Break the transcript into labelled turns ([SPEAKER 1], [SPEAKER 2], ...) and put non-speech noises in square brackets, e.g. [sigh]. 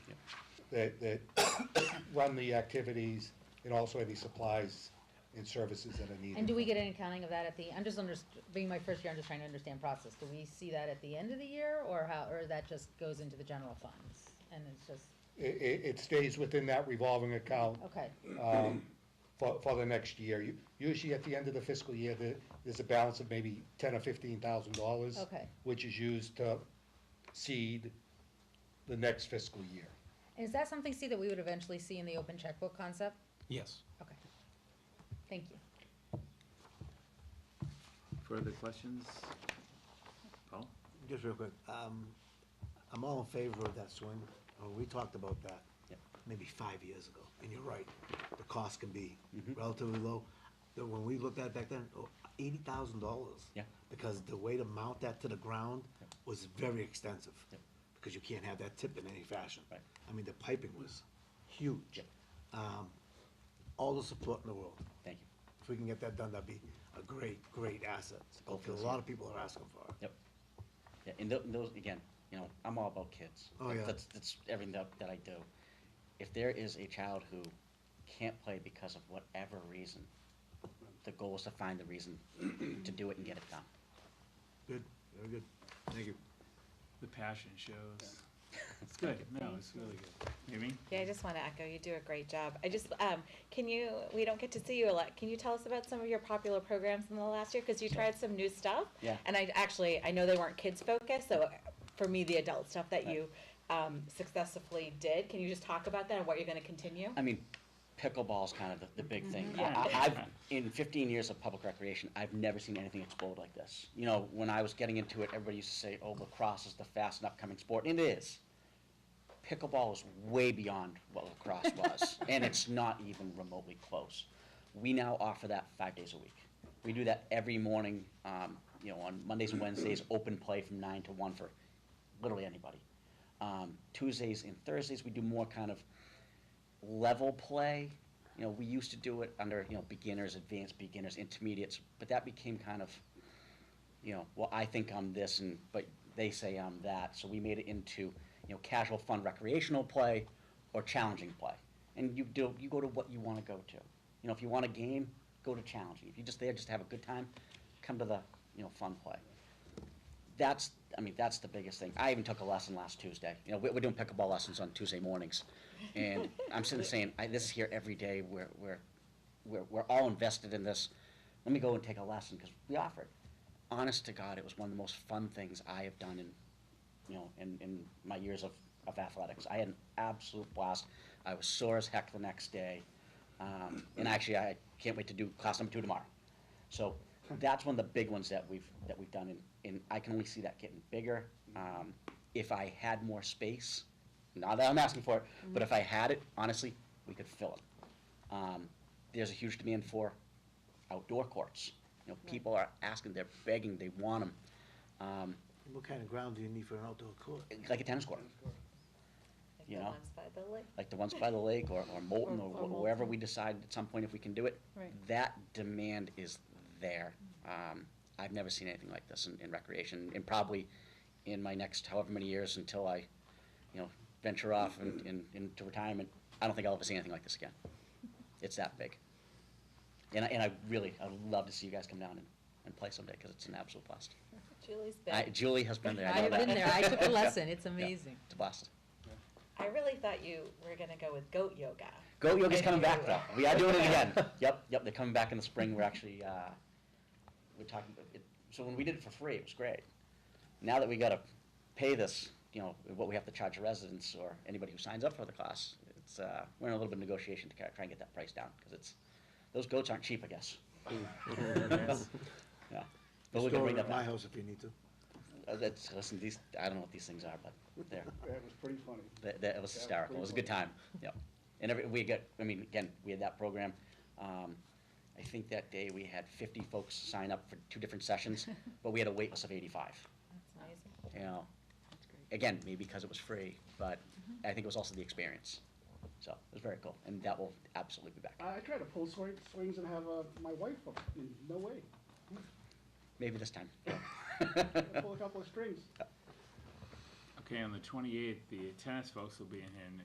[SPEAKER 1] that, that [coughs] run the activities, and also any supplies and services that are needed.
[SPEAKER 2] And do we get an accounting of that at the, I'm just under, being my first year, I'm just trying to understand process. Do we see that at the end of the year or how, or that just goes into the general funds? And it's just,
[SPEAKER 1] It, it, it stays within that revolving account
[SPEAKER 2] okay,
[SPEAKER 1] um, for, for the next year. You- Usually at the end of the fiscal year, there, there's a balance of maybe ten or fifteen thousand dollars.
[SPEAKER 2] Okay.
[SPEAKER 1] Which is used to seed the next fiscal year.
[SPEAKER 2] is that something, Steve, that we would eventually see in the open checkbook concept?
[SPEAKER 3] Yes.
[SPEAKER 2] Okay. Thank you.
[SPEAKER 4] Further questions? Paul?
[SPEAKER 5] Just real quick, um, I'm all in favor of that swing, Oh, we talked about that.
[SPEAKER 4] Yep.
[SPEAKER 5] Maybe five years ago, and you're right, the cost can be
[SPEAKER 4] Mm-hmm.
[SPEAKER 5] relatively low. But when we looked at it back then, oh, eighty thousand dollars.
[SPEAKER 4] Yeah.
[SPEAKER 5] Because the way to mount that to the ground
[SPEAKER 4] Yep.
[SPEAKER 5] was very extensive.
[SPEAKER 4] Yep.
[SPEAKER 5] Because you can't have that tip in any fashion.
[SPEAKER 4] Right.
[SPEAKER 5] I mean, the piping was huge. Um, all the support in the world.
[SPEAKER 4] Thank you.
[SPEAKER 5] If we can get that done, that'd be a great, great asset,
[SPEAKER 4] goal for
[SPEAKER 5] because
[SPEAKER 4] this
[SPEAKER 5] a lot of people are asking for it.
[SPEAKER 4] Yep. Yeah, and tho- those, again, you know, I'm all about kids.
[SPEAKER 5] Oh, yeah.
[SPEAKER 4] That's, that's everything that, that I do. If there is a child who can't play because of whatever reason, the goal is to find the reason to do it and get it done.
[SPEAKER 5] Good, very good. Thank you.
[SPEAKER 3] The passion shows. It's good, no, it's really good. You mean?
[SPEAKER 6] Yeah, I just want to echo. You do a great job. I just um, can you? We don't get to see you a lot. Can you tell us about some of your popular programs in the last year? Because you tried some new stuff.
[SPEAKER 4] Yeah.
[SPEAKER 6] And I actually I know they weren't kids focused. So for me, the adult stuff that you um, successfully did. Can you just talk about that and what you're going to continue?
[SPEAKER 4] I mean, pickleball's kind of the, the big thing. I,
[SPEAKER 3] Yeah.
[SPEAKER 4] I- I've, in fifteen years of public recreation, I've never seen anything explode like this. You know, when I was getting into it, everybody used to say, oh, lacrosse is the fast and upcoming sport, and it is. Pickleball is way beyond what lacrosse was, and it's not even remotely close. We now offer that five days a week. We do that every morning, um, you know, on Mondays and Wednesdays, open play from nine to one for literally anybody. Um, Tuesdays and Thursdays, we do more kind of level play. You know, we used to do it under, you know, beginners, advanced beginners, intermediates, but that became kind of, you know, well, I think I'm this and, but they say I'm that. So we made it into, you know, casual, fun, recreational play or challenging play. And you do, you go to what you want to go to. You know, if you want a game, go to challenging. If you're just there just to have a good time, come to the, you know, fun play. That's, I mean, that's the biggest thing. I even took a lesson last Tuesday. You know, we're, we're doing pickleball lessons on Tuesday mornings. And I'm sitting there saying, I, this is here every day. We're, we're, we're, we're all invested in this. Let me go and take a lesson because we offer it. Honest to God, it was one of the most fun things I have done in, you know, in, in my years of, of athletics. I had an absolute blast. I was sore as heck the next day. Um, and actually, I can't wait to do class number two tomorrow. So that's one of the big ones that we've, that we've done, and, and I can only see that getting bigger. Um, if I had more space, not that I'm asking for it, but if I had it, honestly, we could fill it. Um, there's a huge demand for outdoor courts. You know, people are asking, they're begging, they want them. Um,
[SPEAKER 5] What kind of ground do you need for an outdoor court?
[SPEAKER 4] like a tennis court,
[SPEAKER 6] Like
[SPEAKER 4] you
[SPEAKER 6] the
[SPEAKER 4] know.
[SPEAKER 6] ones by the lake.
[SPEAKER 4] like the ones by the lake or, or Molten
[SPEAKER 6] Or-
[SPEAKER 4] or
[SPEAKER 6] or
[SPEAKER 4] wh- wherever
[SPEAKER 6] Moulton.
[SPEAKER 4] we decide at some point if we can do it.
[SPEAKER 6] Right. Mm-hmm.
[SPEAKER 4] That demand is there. Um, I've never seen anything like this in, in recreation and probably in my next however many years until I, you know, venture off and, and into retirement. I don't think I'll ever see anything like
[SPEAKER 6] [laughs]
[SPEAKER 4] this again. It's that big. And I, and I really, I'd love to see you guys come down and, and play someday because it's an absolute blast.
[SPEAKER 6] Julie's been.
[SPEAKER 4] I, Julie has been there. I know
[SPEAKER 2] I've
[SPEAKER 4] that.
[SPEAKER 2] been there, I
[SPEAKER 4] [laughs]
[SPEAKER 2] took a lesson, it's amazing.
[SPEAKER 4] It's a blast.
[SPEAKER 6] I really thought you were going to go with goat yoga.
[SPEAKER 4] Goat yoga's coming back though. We are doing it again. Yep, yep, they're coming back in the spring. We're actually, uh, we're talking, it, so when we did it for free, it was great. Now that we gotta pay this, you know, what we have to charge residents or anybody who signs up for the class, it's, uh, we're in a little bit of negotiation to kinda try and get that price down, cause it's, those goats aren't cheap,
[SPEAKER 5] [laughs]
[SPEAKER 4] I guess. Yeah. But we're
[SPEAKER 5] Just go
[SPEAKER 4] gonna bring
[SPEAKER 5] over
[SPEAKER 4] that
[SPEAKER 5] at my
[SPEAKER 4] back.
[SPEAKER 5] house if you need to.
[SPEAKER 4] Uh, that's- listen, these, I don't know what these things are, but they're,
[SPEAKER 7] [laughs] That was pretty funny.
[SPEAKER 4] That, that was hysterical. It was a good time. Yep. And every, we got, I mean, again, we had that program. Um, I think that day we had fifty folks sign up for two different
[SPEAKER 7] [laughs]
[SPEAKER 4] sessions, but we had a wait list of eighty-five.
[SPEAKER 6] That's amazing.
[SPEAKER 4] You know, again, maybe because it was free, but I think it was also the experience. So it was very cool, and that will absolutely be back.
[SPEAKER 7] I I tried to pull swing- swings and have uh, my wife up, and no way.
[SPEAKER 4] Maybe this time.
[SPEAKER 7] Pull a couple of strings.
[SPEAKER 3] Okay, on the twenty-eighth, the tennis folks will be in here, and